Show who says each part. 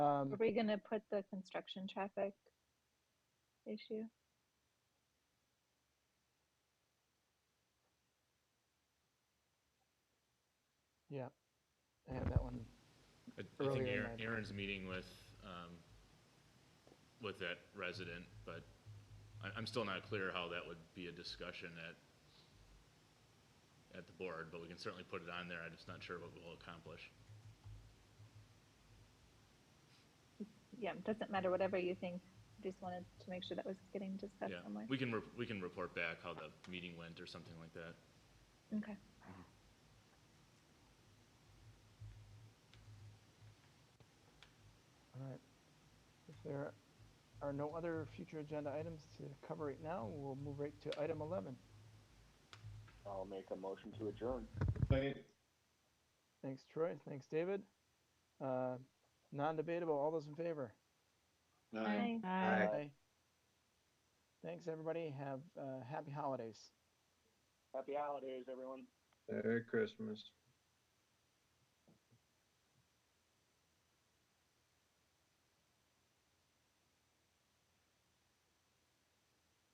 Speaker 1: Um,
Speaker 2: Are we gonna put the construction traffic issue?
Speaker 1: yeah, I had that one.
Speaker 3: I I think
Speaker 1: Earlier in
Speaker 3: Aaron-
Speaker 1: my-
Speaker 3: Aaron's meeting with, um, with that resident, but I, I'm still not clear how that would be a discussion at, at the board, but we can certainly put it on there, I'm just not sure what we'll accomplish.
Speaker 2: Yeah, doesn't matter, whatever you think, just wanted to make sure that was getting discussed
Speaker 3: Yeah,
Speaker 2: somewhere.
Speaker 3: we can, re- we can report back how the meeting went or something like that.
Speaker 2: Okay,
Speaker 1: All right. If there are no other future agenda items to cover right now, we'll move right to item 11.
Speaker 4: I'll make a motion to adjourn.
Speaker 1: Thanks, Troy. Thanks, David. Uh, non-debatable. All those in favor?
Speaker 2: bye.
Speaker 5: Aye.
Speaker 1: Thanks, everybody. Have uh, happy holidays.
Speaker 4: Happy holidays, everyone.
Speaker 5: Merry Christmas.